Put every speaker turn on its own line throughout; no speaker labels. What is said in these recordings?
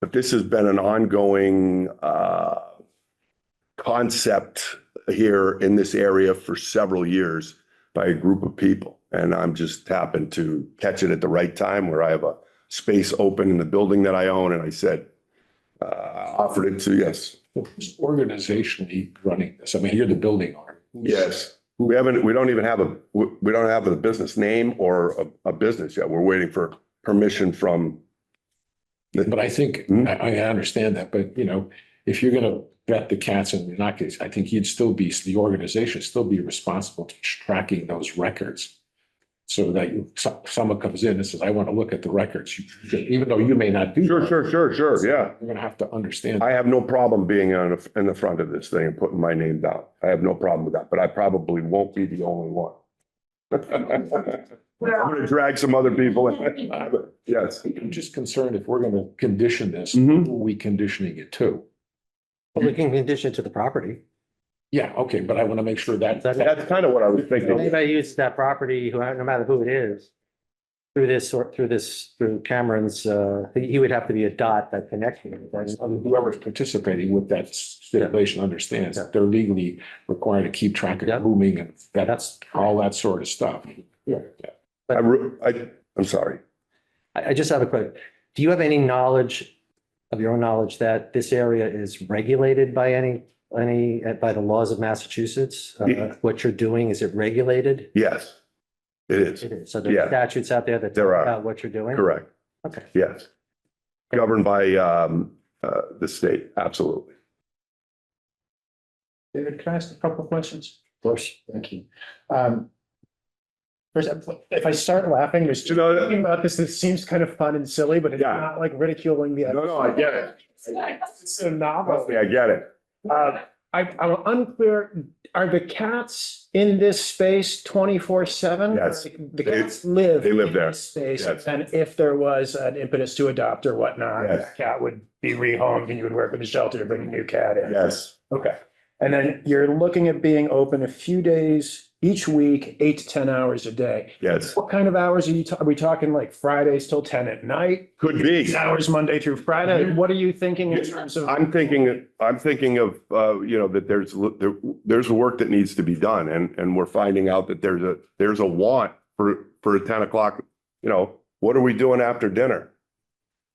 But this has been an ongoing uh, concept here in this area for several years by a group of people. And I'm just happened to catch it at the right time where I have a space open in the building that I own. And I said, uh, offered it to, yes,
Who's organizationally running this? I mean, you're the building owner. Who's-
yes. We haven't, we don't even have a, we we don't have a business name or a, a business yet. We're waiting for permission from,
But I think,
Hmm.
I, I understand that, but you know, if you're gonna vet the cats and in that case, I think you'd still be, the organization would still be responsible to tracking those records. So that you, so- someone comes in and says, I want to look at the records, you should- even though you may not do.
sure,
that,
sure, sure, sure, yeah.
You're gonna have to understand.
I have no problem being on, the- in the front of this thing and putting my name down. I have no problem with that, but I probably won't be the only one. I'm gonna drag some other people in. Yes.
I'm just concerned if we're gonna condition this,
Mhm.
who are we conditioning it to?
Well, we can condition to the property.
Yeah, okay, but I want to make sure that, that,
That's kind of what I was
If
thinking.
Anybody uses that property, who, no matter who it is, through this, or through this, through Cameron's, uh, he he would have to be a dot that connects you.
that's- whoever's participating with that stipulation understands that they're legally required to keep track
Yeah.
of grooming and that,
That's,
all that sort of stuff. Yeah.
I, re- I, I'm sorry.
I, I just have a question. Do you have any knowledge, of your own knowledge, that this area is regulated by any, any, uh, by the laws of Massachusetts? Uh, What you're doing, is it regulated?
Yes, it is.
It is. So there
Yeah.
are statutes out there that.
There
talk
are.
About what you're doing?
Correct.
Okay.
Yes. Governed by, um, uh, the state, absolutely.
David, can I ask a couple of questions?
Of course.
Thank you. Um, First, um, if I start laughing, there's
You know-
talking about this, it seems kind of fun and silly, but it's
Yeah.
not like ridiculing the.
No, no, I get it.
It's so
Trust
novel.
me, I get it.
Uh, I, I'm unclear, are the cats in this space twenty-four seven?
Yes.
The
They-
cats live.
they live
in
there.
this Space,
Yes.
and if there was an impetus to adopt or whatnot, the
Yes.
cat would be rehomed and you would work with the shelter to bring a new cat in.
Yes,
Okay, and then you're looking at being open a few days each week, eight to ten hours a day.
yes.
What kind of hours are you, ta- are we talking like Fridays till ten at night?
Could be.
Eight Hours Monday through Friday? What are you thinking in terms of?
Mm-hmm. I'm thinking, I'm thinking of, uh, you know, that there's, there- there's work that needs to be done and, and we're finding out that there's a, there's a want for, for a ten o'clock, you know, what are we doing after dinner?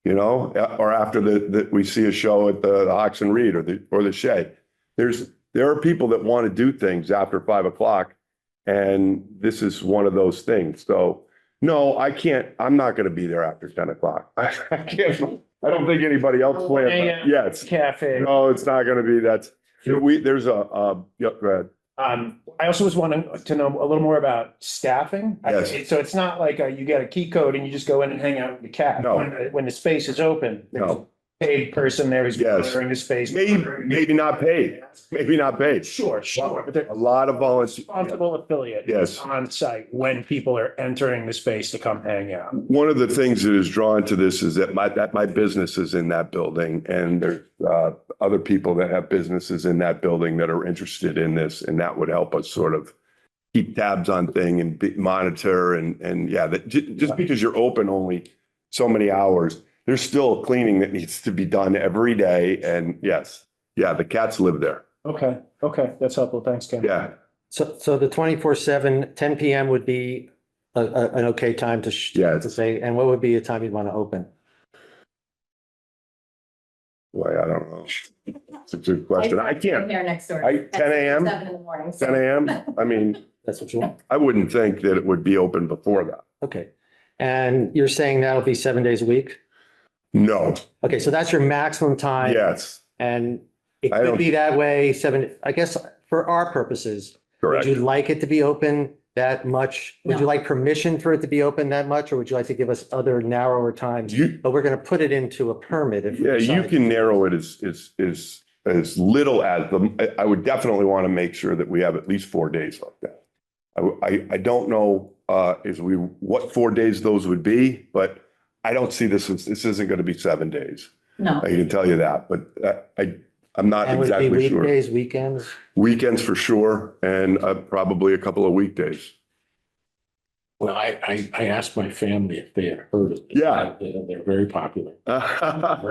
You know, uh, or after the, that we see a show at the the Ox and Reed or the, or the Shed. There's, there are people that want to do things after five o'clock and this is one of those things. So, no, I can't, I'm not going to be there after ten o'clock. I can't, I don't think anybody else plans. that. Yes.
Cafe.
No, it's not gonna be, that's, we, there's a, uh, yep, go ahead.
Um, I also was wanting to know a little more about staffing. I-
Yes.
So it's not like uh, you get a key code and you just go in and hang out with the cat.
No.
When the- When the space is open. there's
No.
a Paid person there who's
Yes.
monitoring the space.
Maybe, maybe not paid, maybe not paid.
Sure, sure, but they're.
A lot of volunteers.
responsible affiliate.
Yes.
On site when people are entering the space to come hang out.
One of the things that is drawn to this is that my, that my business is in that building and there's, uh, other people that have businesses in that building that are interested in this and that would help us sort of keep tabs on thing and be- monitor and, and yeah, that, ju- just because you're open only so many hours, there's still cleaning that needs to be done every day and yes, yeah, the cats live there.
Okay, okay, that's helpful. Thanks, Ken.
Yeah,
So, so the twenty-four seven, ten PM would be a, a, an okay time to, sh-
Yeah.
to say, and what would be a time you'd want to open?
Why, I don't know. It's a good question. I can't,
There next door.
I-
At
10 a.m.?
Seven in the morning. so-
ten AM? I mean,
That's what you want?
I wouldn't think that it would be open before that.
Okay. And you're saying that'll be seven days a week?
No,
Okay, so that's your maximum time.
yes,
And it
I don't-
could be that way, seven, I guess, for our purposes. Would
correct.
you like it to be open that much? Would you
No.
like permission for it to be open that much, or would you like to give us other narrower times?
You,
But we're going to put it into a permit if. we
yeah, you
decide.
can narrow it as, as, as, as little as the, I, I would definitely want to make sure that we have at least four days like that. I, w- I, I don't know, uh, is we, what four days those would be, but I don't see this, as- this isn't going to be seven days.
No,
I can tell you that, but uh, I, I'm not
And would it be
exactly sure.
weekdays, weekends?
Weekends for sure, and uh, probably a couple of weekdays.
Well, I, I, I asked my family if they had heard of it.
Yeah.
They're they're very popular.
Right.